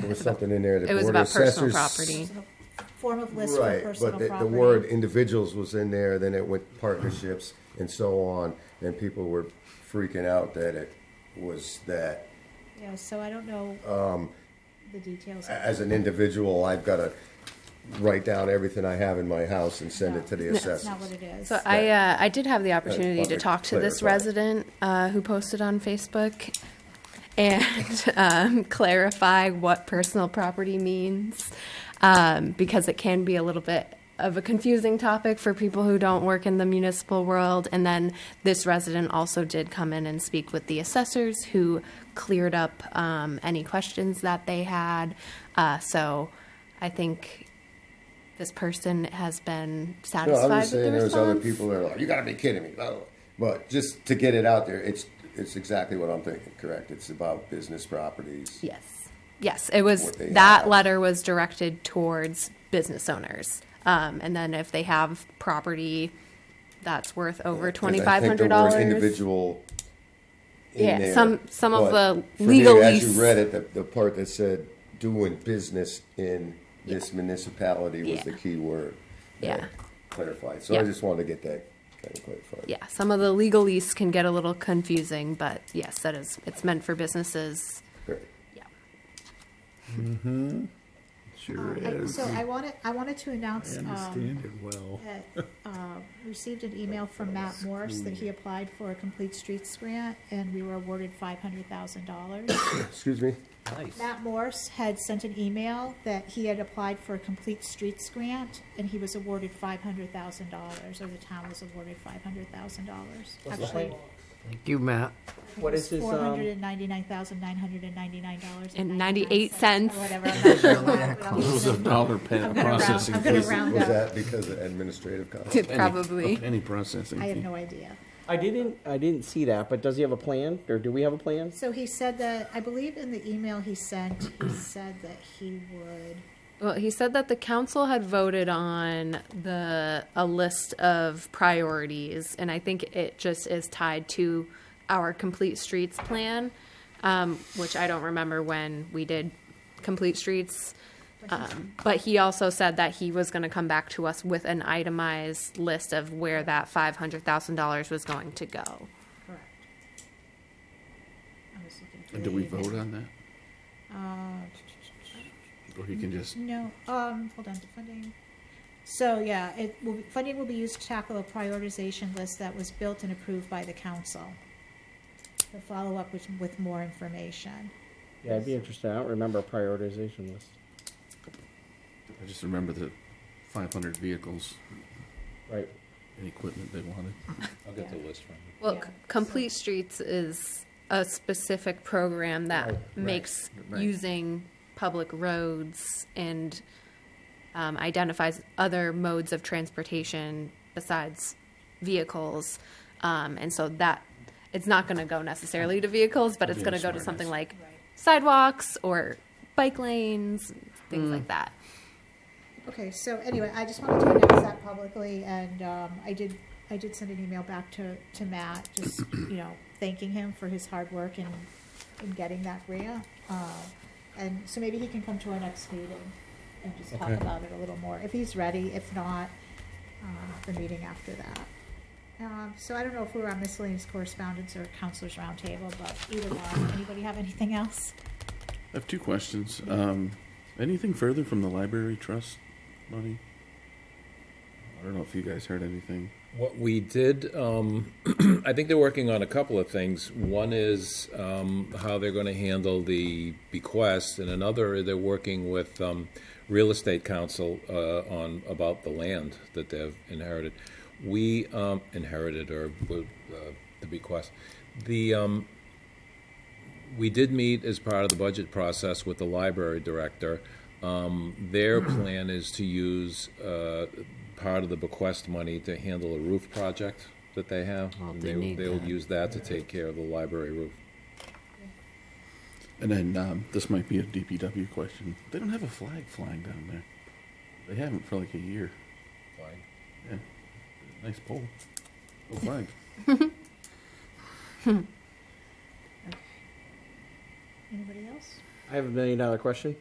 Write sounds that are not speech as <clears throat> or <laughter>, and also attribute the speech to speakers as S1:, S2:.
S1: there was something in there that
S2: It was
S1: board of
S2: about personal
S1: assessors-
S2: property.
S3: Form of list for
S1: Right,
S3: personal
S1: but the,
S3: property.
S1: the word individuals was in there, then it went partnerships and so on, and people were freaking out that it was that.
S3: Yeah, so I don't know the details.
S1: A- um, As an individual, I've gotta write down everything I have in my house and send it to the
S3: That's not what
S1: assessors.
S3: it is.
S2: So I, uh, I did have the opportunity to
S1: public
S2: talk to this
S1: clarify.
S2: resident uh, who posted on Facebook and <laughs> um, clarify what personal property means um, because it can be a little bit of a confusing topic for people who don't work in the municipal world. And then this resident also did come in and speak with the assessors who cleared up um, any questions that they had. Uh, so I think this person has been
S1: No,
S2: satisfied
S1: I'm just
S2: with the
S1: saying, there's
S2: response.
S1: other people that are like, you gotta be kidding me, blah, blah, blah." but just to get it out there, it's, it's exactly what I'm thinking, correct? It's about business properties.
S2: Yes. Yes, it was,
S1: What they
S2: that
S1: have.
S2: letter was directed towards business owners. Um, and then if they have property that's worth over
S1: Because
S2: twenty-five hundred dollars.
S1: I think the word individual. in
S2: Yeah,
S1: there,
S2: some- some of
S1: but
S2: the
S1: for me,
S2: legal
S1: As
S2: lease-
S1: you read it, the, the part that said doing business in this municipality was
S2: Yeah.
S1: the key word. that
S2: Yeah.
S1: Clarified, so
S2: Yeah.
S1: I just wanted to get that kind of clarified.
S2: Yeah, some of the legalese can get a little confusing, but yes, that is, it's meant for businesses.
S1: Great.
S2: Yeah.
S4: Sure
S3: I-
S4: is.
S3: Um, So I wanted, I wanted to announce,
S4: I
S3: um,
S4: understand it well.
S3: that, uh, received an email from Matt Morse that he applied for a complete streets grant and we were awarded five hundred thousand
S4: <coughs>
S3: dollars.
S1: Excuse me?
S3: Matt Morse had sent an email that he had applied for a complete streets grant and he was awarded five hundred thousand dollars, or the town was awarded five hundred thousand dollars. Actually,
S5: Thank you, Matt.
S6: What is his,
S3: Four hundred
S6: um,
S3: and ninety-nine thousand, nine hundred and ninety-nine dollars.
S2: And 98 cents.
S3: Or <laughs> whatever, I'm not sure. what- what else
S4: There's
S3: is
S4: a
S3: in-
S4: dollar
S3: I'm
S4: pen
S3: gonna round-
S4: processing
S3: I'm gonna
S4: fee.
S3: round- Round
S1: Was
S3: up.
S1: that because of administrative costs?
S2: It's probably.
S4: Any processing
S3: I have
S4: fee.
S3: no idea.
S6: I didn't, I didn't see that, but does he have a plan, or do we have a plan?
S3: So he said that, I believe in the email he sent,
S4: <clears throat>
S3: he said that he would,
S2: Well, he said that the council had voted on the a list of priorities, and I think it just is tied to our complete streets plan, um, which I don't remember when we did complete streets. Um, but he also said that he was going to come back to us with an itemized list of where that five hundred thousand dollars was going to go.
S3: correct. I was looking through Uh,
S4: Do we
S3: the email.
S4: vote on that? Or you can just,
S3: No, um, hold on, the funding. So, yeah, it will, be- funding will be used to tackle a prioritization list that was built and approved by the council. The follow-up with, with more information.
S6: Yeah, I'd be interested, I don't remember a prioritization list.
S4: I just remember the five hundred vehicles
S6: Right.
S4: and equipment they wanted.
S7: I'll get the
S3: Yeah.
S7: list from you.
S2: Well,
S3: Yeah,
S2: c- Complete Streets is a specific program that makes
S5: right.
S2: using public roads and um, identifies other modes of transportation besides vehicles. Um, and so that, it's not going to go necessarily to vehicles, but it's
S4: Yeah,
S2: going to go to
S4: smartness.
S2: something like
S3: Right.
S2: sidewalks or bike lanes,
S5: Mm.
S2: things like that.
S3: Okay, so anyway, I just wanted to announce that publicly, and um, I did, I did send an email back to, to Matt, just, you know, thanking him for his hard work in, in getting that grant. Uh, And so maybe he can come to our next meeting and just talk
S4: Okay.
S3: about it a little more, if he's ready, if not, um, the meeting after that. Um, So I don't know if we were on miscellaneous correspondence or counselors roundtable, but either one, anybody have anything else?
S4: I have two questions. Um, anything further from the library trust money? I don't know if you guys heard anything.
S7: What we did, um, <clears throat> I think they're working on a couple of things. One is, um, how they're gonna handle the bequest, and another, they're working with, um, real estate council, uh, on, about the land that they've inherited. We, um, inherited or, uh, the bequest. The, um, we did meet as part of the budget process with the library director. Um, their
S5: Mm-hmm.
S7: plan is to use, uh, part of the bequest money to handle a roof project that they have.
S5: Oh,
S7: And
S5: they need
S7: They'll
S5: that.
S7: use that to take care of the library roof.
S4: And then, um, this might be a DPW question. They don't have a flag flying down there. They haven't for like a year. Yeah. Nice pole. Go flag.
S3: Anybody else?
S6: I have a million dollar question.